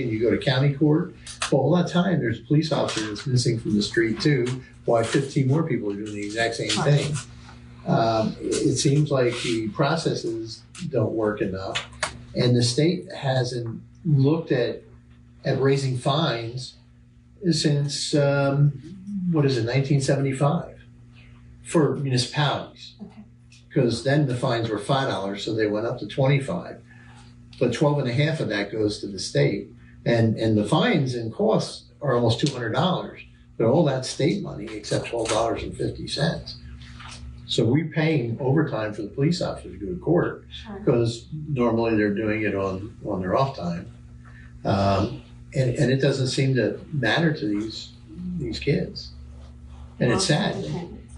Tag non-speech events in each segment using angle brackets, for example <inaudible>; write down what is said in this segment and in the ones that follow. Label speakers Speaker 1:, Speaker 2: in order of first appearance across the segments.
Speaker 1: and you go to county court, well, all that time, there's a police officer that's missing from the street too. Why fifteen more people are doing the exact same thing? Um, it seems like the processes don't work enough, and the state hasn't looked at at raising fines since um, what is it, 1975, for municipalities.
Speaker 2: Okay.
Speaker 1: Because then the fines were five dollars, so they went up to 25. But 12 and a half of that goes to the state, and and the fines and costs are almost 200 dollars. But all that state money except 12 dollars and 50 cents. So we're paying overtime for the police officers to go to court
Speaker 2: Sure.
Speaker 1: because normally they're doing it on, on their off time. Um, and, and it doesn't seem to matter to these, these kids. And it's sad.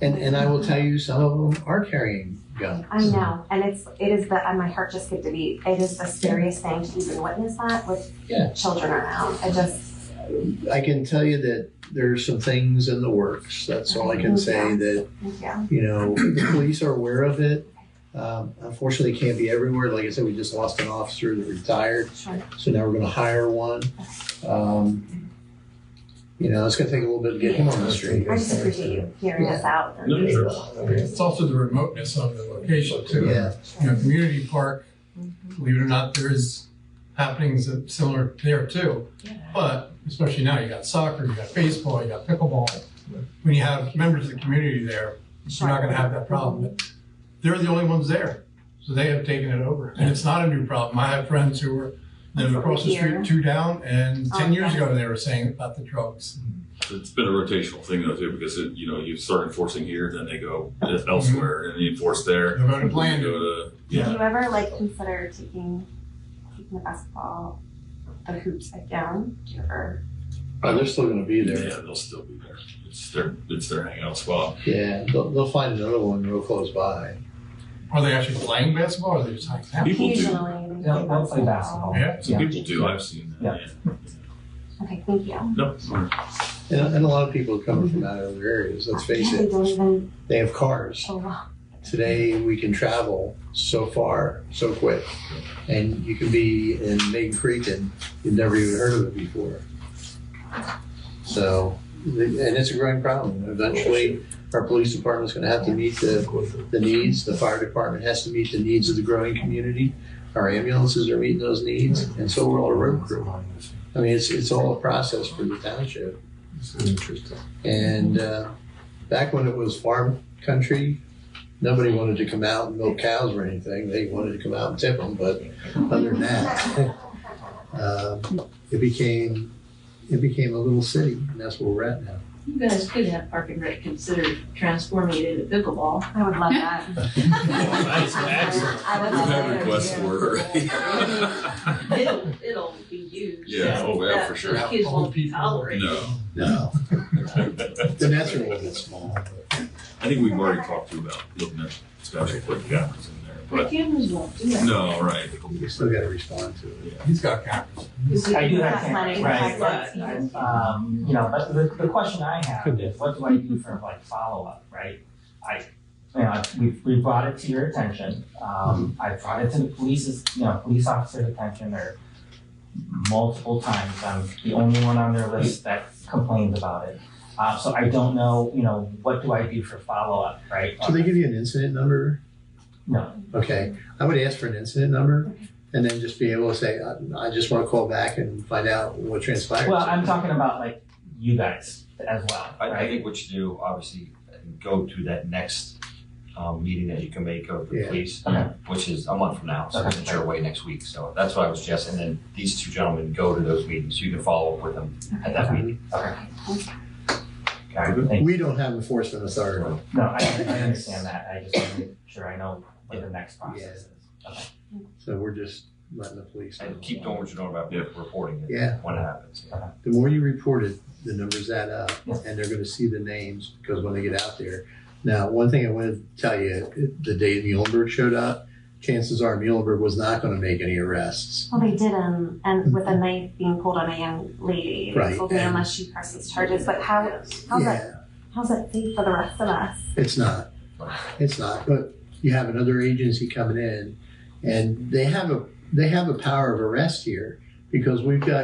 Speaker 1: And, and I will tell you, some of them are carrying guns.
Speaker 2: I know, and it's it is the and my heart just skipped a beat. It is the scariest thing to even witness that with
Speaker 1: Yeah.
Speaker 2: children around. I just
Speaker 1: I can tell you that there's some things in the works. That's all I can say that
Speaker 2: Oh, yeah.
Speaker 1: you know, the police are aware of it. Um, unfortunately, it can't be everywhere. Like I said, we just lost an officer that retired.
Speaker 2: Sure.
Speaker 1: So now we're going to hire one. Um, you know, it's going to take a little bit to get him on the street.
Speaker 2: I just appreciate you hearing us out.
Speaker 3: No,
Speaker 2: And
Speaker 3: sure.
Speaker 4: It's also the remoteness of the location too.
Speaker 1: Yeah,
Speaker 4: You know, community park,
Speaker 2: Mm-hmm.
Speaker 4: believe it or not, there is happenings that similar there too. But especially now, you got soccer, you got baseball, you got pickleball. When you have members of the community there, you're not gonna have that problem. But They're the only ones there, so they have taken it over. And it's not a new problem. I have friends who were, live across the
Speaker 2: Here.
Speaker 4: street, two down, and
Speaker 2: Oh,
Speaker 4: ten years
Speaker 2: yeah.
Speaker 4: ago, they were saying about the drugs.
Speaker 3: It's been a rotational thing though too, because it, you know you start enforcing here, then they go elsewhere, and you enforce there.
Speaker 4: They're voting
Speaker 3: Then you
Speaker 4: bland.
Speaker 3: go to
Speaker 2: Did
Speaker 3: yeah.
Speaker 2: you ever like consider taking taking the basketball the hoops back down? Did you ever
Speaker 1: Oh, they're still going to be there.
Speaker 3: Yeah, they'll still be there. It's their it's their hangout spot.
Speaker 1: Yeah, they'll, they'll find another one real close by.
Speaker 4: Are they actually playing basketball, or are they just hanging out?
Speaker 3: People do.
Speaker 2: occasionally they
Speaker 5: Yeah, they'll play basketball.
Speaker 4: Yeah,
Speaker 3: Some people do. I've seen that. Yeah.
Speaker 2: Okay, thank you.
Speaker 3: No. <laughs>
Speaker 1: And, and a lot of people are coming from out of other areas, let's face
Speaker 2: They
Speaker 1: it.
Speaker 2: don't even
Speaker 1: They have cars.
Speaker 2: show up.
Speaker 1: Today, we can travel so far, so quick. And you can be in Maiden Creek and you've never even heard of it before. So, and it's a growing problem. Eventually, our police department's gonna have to meet the, the needs. The fire department has to meet the needs of the growing community. Our ambulances are meeting those needs, and so will our road crew. I mean, it's, it's all a process for the township. And uh, back when it was farm country, nobody wanted to come out and milk cows or anything. They wanted to come out and tip them, but other than that, <laughs> um, it became it became a little city, and that's where we're at now.
Speaker 6: You guys could have Park and Rec consider transforming it into pickleball.
Speaker 2: I would love that.
Speaker 3: That's excellent.
Speaker 2: I would
Speaker 3: We've
Speaker 2: love
Speaker 3: had
Speaker 2: that.
Speaker 3: requests for it already.
Speaker 6: <laughs> It'll, it'll be used.
Speaker 3: Yeah, oh, yeah,
Speaker 6: That-
Speaker 3: for sure.
Speaker 6: those Kids
Speaker 4: Old
Speaker 6: won't
Speaker 4: people.
Speaker 6: tolerate. it.
Speaker 3: no.
Speaker 1: No, the nets are a little bit small.
Speaker 3: I think we've already talked to you about looking at especially putting cameras in there,
Speaker 6: The
Speaker 3: but
Speaker 6: cameras won't do that.
Speaker 3: no, right.
Speaker 1: We still got to respond to it.
Speaker 4: He's got cameras.
Speaker 6: 'Cause if
Speaker 5: I do
Speaker 6: you're
Speaker 5: have
Speaker 6: not
Speaker 5: cameras,
Speaker 6: planning
Speaker 5: right,
Speaker 6: on
Speaker 5: but, um, you know, but the, the question I have is, what do I do for like follow-up, right? I, you know, we, we brought it to your attention, um, I brought it to the police's, you know, police officer's attention or multiple times, I'm the only one on their list that complains about it. Uh, so I don't know, you know, what do I do for follow-up, right?
Speaker 1: So they give you an incident number?
Speaker 5: No.
Speaker 1: Okay, I would ask for an incident number, and then just be able to say, I, I just want to call back and find out what transpired.
Speaker 5: Well, I'm talking about like you guys as well,
Speaker 7: I, I
Speaker 5: right?
Speaker 7: think what you do, obviously, go to that next um, meeting that you can make of the
Speaker 1: Yeah.
Speaker 7: police,
Speaker 5: Okay.
Speaker 7: which is a month from now, so
Speaker 5: Okay.
Speaker 7: it's your way next week. So that's what I was suggesting. And then these two gentlemen go to those meetings. You can follow up with them at that
Speaker 5: Okay.
Speaker 7: meeting.
Speaker 5: Okay,
Speaker 7: Okay.
Speaker 5: thank you.
Speaker 1: We don't have enforcement authority.
Speaker 5: No, I, I understand that, I just want to make sure I know what the next process is. Okay.
Speaker 1: So we're just letting the police know.
Speaker 7: And keep doing what you're doing about
Speaker 3: Yeah.
Speaker 7: reporting it
Speaker 1: Yeah.
Speaker 7: when it happens.
Speaker 1: The more you report it, the numbers add up,
Speaker 5: Yeah.
Speaker 1: and they're gonna see the names, because when they get out there. Now, one thing I wanted to tell you, it- the day Muhlenberg showed up, chances are Muhlenberg was not gonna make any arrests.
Speaker 2: Well, they didn't, and with a knife being pulled on a young lady, they
Speaker 1: Mm-hmm. Right,
Speaker 2: told me
Speaker 1: and-
Speaker 2: unless she presses charges. But how how's that
Speaker 1: Yeah,
Speaker 2: how's that safe for the rest of us?
Speaker 1: it's not, it's not, but you have another agency coming in, and they have a, they have a power of arrest here, because we've got